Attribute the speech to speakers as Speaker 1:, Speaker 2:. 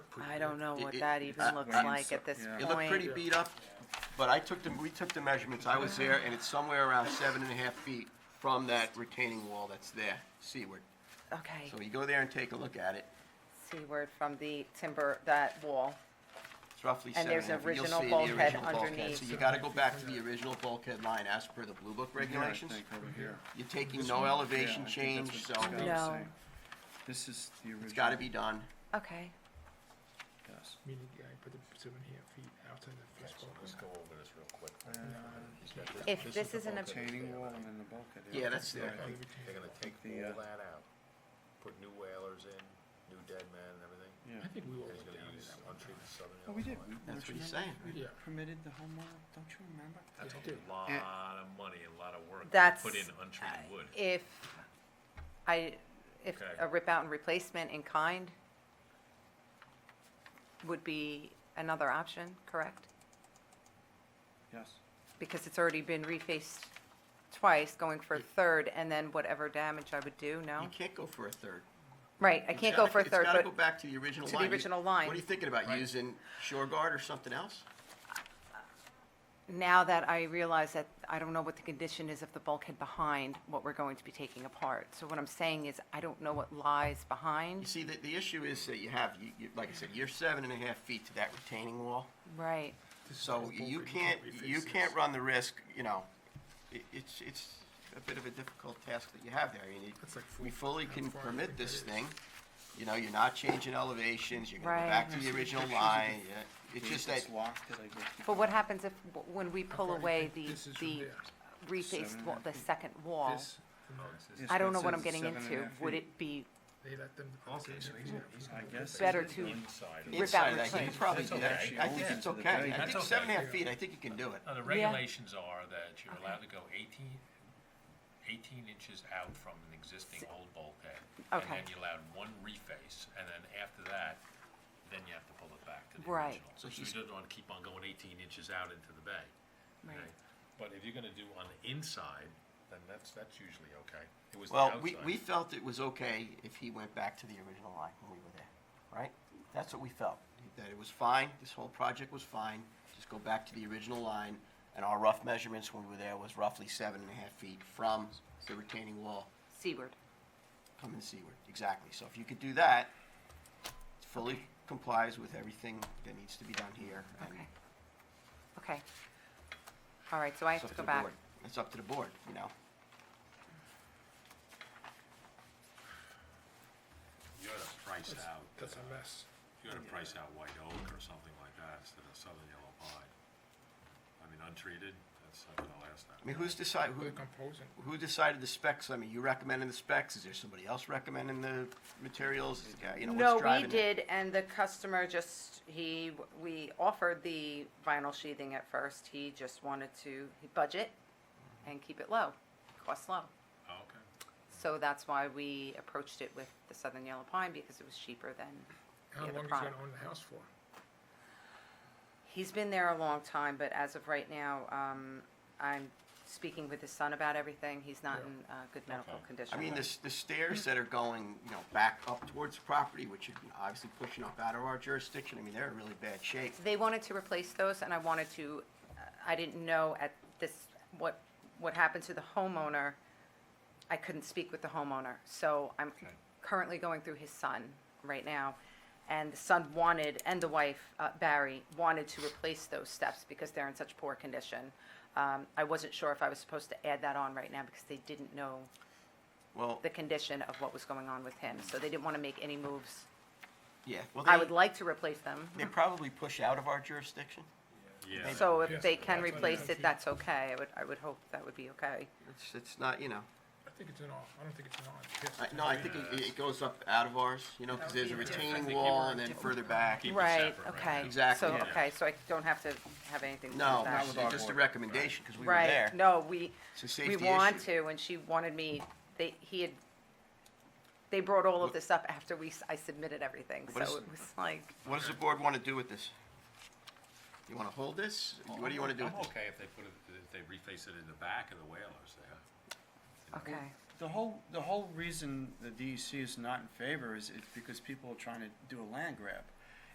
Speaker 1: I don't know what
Speaker 2: It- it-
Speaker 1: that even
Speaker 2: uh,
Speaker 1: looks
Speaker 2: um,
Speaker 1: like at this
Speaker 3: yeah.
Speaker 1: point.
Speaker 2: It looked pretty beat up, but I took the, we took the measurements, I was there, and it's somewhere around seven and a half feet from that retaining wall that's there, seaward.
Speaker 1: Okay,
Speaker 2: So you go there and take a look at it,
Speaker 1: seaward from the timber, that wall.
Speaker 2: it's roughly
Speaker 1: And
Speaker 2: seven and
Speaker 1: there's
Speaker 2: a half. You'll
Speaker 1: original
Speaker 2: see the
Speaker 1: bulkhead
Speaker 2: original bulkhead.
Speaker 1: underneath.
Speaker 2: So you gotta go back to the original bulkhead line as per the Blue Book regulations. You're taking no elevation change, so
Speaker 1: No.
Speaker 3: This is the original.
Speaker 2: it's gotta be done.
Speaker 1: Okay,
Speaker 3: Yes.
Speaker 4: Meaning, yeah, I put the seven and a half feet outside the first
Speaker 5: So
Speaker 4: bulkhead.
Speaker 5: let's go over this real quick.
Speaker 2: Uh,
Speaker 5: He's got this-
Speaker 1: If
Speaker 5: is
Speaker 1: this
Speaker 5: the
Speaker 1: isn't a-
Speaker 5: bulkhead
Speaker 3: Retaining
Speaker 5: that's
Speaker 3: Uh, wall
Speaker 5: there,
Speaker 3: and then the bulkhead.
Speaker 2: Yeah, that's there.
Speaker 5: right? They're gonna take
Speaker 3: The,
Speaker 5: all
Speaker 3: uh,
Speaker 5: that out, put new whalers in, new dead men and everything,
Speaker 3: Yeah.
Speaker 4: I think we
Speaker 5: and
Speaker 4: all
Speaker 5: he's
Speaker 4: went
Speaker 5: gonna
Speaker 4: down in
Speaker 5: use
Speaker 4: that one.
Speaker 5: untreated southern
Speaker 3: Oh, we
Speaker 5: Illinois.
Speaker 3: did. We-
Speaker 2: That's what
Speaker 3: we
Speaker 2: he's
Speaker 3: remember-
Speaker 2: saying.
Speaker 3: we
Speaker 4: Yeah.
Speaker 3: Permitted the homework, don't you remember?
Speaker 5: That's a
Speaker 4: Yeah.
Speaker 2: Uh,
Speaker 5: lot of money, a lot of work to
Speaker 1: that's. uh,
Speaker 5: put in untreated wood.
Speaker 1: If I, if
Speaker 5: Okay.
Speaker 1: a rip out and replacement in kind would be another option, correct?
Speaker 3: Yes.
Speaker 1: Because it's already been refaced twice, going for a third, and then whatever damage I would do, no?
Speaker 2: You can't go for a third.
Speaker 1: Right, I
Speaker 2: It's
Speaker 1: can't go
Speaker 2: gotta-
Speaker 1: for a third,
Speaker 2: It's gotta go
Speaker 1: but
Speaker 2: back to the original
Speaker 1: to the
Speaker 2: line. You-
Speaker 1: original line.
Speaker 2: What are you thinking about, using shore guard or something else?
Speaker 1: now that I realize that I don't know what the condition is of the bulkhead behind what we're going to be taking apart. So what I'm saying is, I don't know what lies
Speaker 2: You
Speaker 1: behind.
Speaker 2: see, the, the issue is that you have, you, you, like I said, you're seven and a half feet to that retaining wall.
Speaker 1: Right,
Speaker 4: This is
Speaker 2: So
Speaker 4: all
Speaker 2: you
Speaker 4: bulkhead,
Speaker 2: can't,
Speaker 4: reface
Speaker 2: you
Speaker 4: this.
Speaker 2: can't run the risk, you know, it, it's, it's a bit of a difficult task that you have there. I mean,
Speaker 4: That's like
Speaker 2: we
Speaker 4: full-
Speaker 2: fully
Speaker 4: how
Speaker 2: can
Speaker 4: far
Speaker 2: permit
Speaker 4: back
Speaker 2: this
Speaker 4: that is.
Speaker 2: thing. You know, you're not changing elevations, you're gonna
Speaker 1: Right.
Speaker 2: go back
Speaker 4: I
Speaker 2: to
Speaker 4: see
Speaker 2: the
Speaker 4: the
Speaker 2: original
Speaker 4: pictures of
Speaker 2: line. yeah. It's
Speaker 3: Gate
Speaker 2: just
Speaker 3: that's
Speaker 2: that,
Speaker 3: Locked, 'cause I go-
Speaker 1: but what happens if, when we pull
Speaker 4: far do you
Speaker 1: away
Speaker 4: think
Speaker 1: the,
Speaker 4: this is from
Speaker 1: the
Speaker 4: there?
Speaker 1: refaced,
Speaker 3: Seven
Speaker 1: wa-
Speaker 3: and a
Speaker 1: the
Speaker 3: half feet.
Speaker 1: second wall?
Speaker 4: This,
Speaker 5: Oh,
Speaker 4: and that.
Speaker 3: This
Speaker 1: I don't
Speaker 3: one
Speaker 1: know what I'm
Speaker 3: says
Speaker 1: getting
Speaker 3: seven and a
Speaker 1: into.
Speaker 3: half
Speaker 1: Would
Speaker 3: feet.
Speaker 1: it be
Speaker 4: they let them.
Speaker 5: Okay, so he's gonna, he's
Speaker 3: I
Speaker 5: gonna.
Speaker 3: guess.
Speaker 1: better to,
Speaker 5: Inside. of
Speaker 1: Rip out
Speaker 2: inside, I
Speaker 1: replace.
Speaker 2: think you probably
Speaker 5: That's
Speaker 2: do that.
Speaker 3: okay.
Speaker 2: I think
Speaker 3: Yeah.
Speaker 2: it's okay. I
Speaker 5: That's
Speaker 2: think
Speaker 5: okay.
Speaker 2: seven and a half feet, I think you can do it.
Speaker 6: Now, Uh, the
Speaker 1: Yeah.
Speaker 6: regulations are that you're allowed to go 18 18 inches out from an existing old bulkhead. And
Speaker 1: Okay.
Speaker 6: then you're allowed one reface, and then after that, then you have to pull it back to the
Speaker 1: Right.
Speaker 6: original.
Speaker 2: So
Speaker 6: So you
Speaker 2: she's-
Speaker 6: don't want to keep on going 18 inches out into the bay.
Speaker 1: Right.
Speaker 6: okay? But if you're going to do on the inside, then that's, that's usually okay. It was the
Speaker 2: Well, we,
Speaker 6: outside.
Speaker 2: we felt it was okay if he went back to the original line when we were there, right? That's what we felt, that it was fine, this whole project was fine, just go back to the original line. And our rough measurements when we were there was roughly seven and a half feet from the retaining wall
Speaker 1: seaward?
Speaker 2: coming seaward, exactly. So if you could do that, it fully complies with everything that needs to be done here. and
Speaker 1: Okay. Okay. All right, so I
Speaker 2: it's
Speaker 1: have
Speaker 2: up
Speaker 1: to
Speaker 2: the
Speaker 1: go back.
Speaker 2: board. It's up to the board, you know?
Speaker 6: You're to price out,
Speaker 4: That's a mess.
Speaker 6: you're to price out white oak or something like that instead of southern yellow pine. I mean, untreated, that's not going to last that
Speaker 2: I mean, who's decide, who,
Speaker 4: We're composing.
Speaker 2: Who decided the specs? I mean, you recommending the specs? Is there somebody else recommending the materials? Is the guy, you know,
Speaker 1: No,
Speaker 2: what's
Speaker 1: we
Speaker 2: driving it?
Speaker 1: did, and the customer just, he, we offered the vinyl sheathing at first. He just wanted to budget and keep it low, cost low.
Speaker 6: Oh, Okay.
Speaker 1: So that's why we approached it with the Southern Yellow Pine, because it was cheaper than,
Speaker 4: How
Speaker 1: Yeah, the
Speaker 4: long is he
Speaker 1: product.
Speaker 4: gonna own the house for?
Speaker 1: he's been there a long time, but as of right now, um, I'm speaking with his son about everything. He's not
Speaker 4: Yeah.
Speaker 1: in, uh, good medical
Speaker 6: Okay.
Speaker 1: condition.
Speaker 2: I mean, the, the stairs that are going, you know, back up towards the property, which are you know, obviously pushing up out of our jurisdiction, I mean, they're in really bad shape.
Speaker 1: They wanted to replace those, and I wanted to, I didn't know at this, what, what happened to the homeowner. I couldn't speak with the homeowner, so I'm currently going through his son right now. And the son wanted, and the wife, uh, Barry, wanted to replace those steps because they're in such poor condition. Um, I wasn't sure if I was supposed to add that on right now because they didn't know
Speaker 2: Well,
Speaker 1: the condition of what was going on with him, so they didn't want to make any moves.
Speaker 2: yeah, well,
Speaker 1: I would
Speaker 2: they,
Speaker 1: like to replace them.
Speaker 2: they probably push out of our jurisdiction.
Speaker 6: Yeah.
Speaker 1: So if
Speaker 4: Yes,
Speaker 1: they can
Speaker 4: that's what I
Speaker 1: replace
Speaker 4: think.
Speaker 1: it, that's okay. I would, I would hope that would be okay.
Speaker 2: It's, it's not, you know,
Speaker 4: I think it's an off, I don't think it's an on. Yes,
Speaker 2: I,
Speaker 4: it's
Speaker 2: Uh, no,
Speaker 4: an
Speaker 2: I
Speaker 4: on.
Speaker 2: think it, it goes up out of ours, you know, because there's a retaining
Speaker 6: you
Speaker 2: wall
Speaker 6: were
Speaker 2: and then further back.
Speaker 6: Keep it
Speaker 1: Right,
Speaker 6: separate right
Speaker 1: okay.
Speaker 6: now.
Speaker 2: Exactly,
Speaker 1: So,
Speaker 2: yeah.
Speaker 1: okay, so I don't have to have anything to do
Speaker 2: No,
Speaker 1: with that.
Speaker 2: it's
Speaker 3: our
Speaker 2: just a
Speaker 3: board.
Speaker 2: recommendation, because we were there.
Speaker 1: Right, no, we,
Speaker 2: It's a
Speaker 1: we
Speaker 2: safety
Speaker 1: want
Speaker 2: issue.
Speaker 1: to, and she wanted me, they, he had, they brought all of this up after we, s- I submitted everything, so
Speaker 2: What
Speaker 1: it
Speaker 2: is-
Speaker 1: was like,
Speaker 2: What does the board want to do with this? You want to hold this? What do you want to do with
Speaker 6: I'm
Speaker 2: this?
Speaker 6: okay if they put it, if they reface it in the back of the whalers there.
Speaker 1: okay,
Speaker 3: The whole, E the whole reason the DEC is not in favor is, is because people are trying to do a land grab.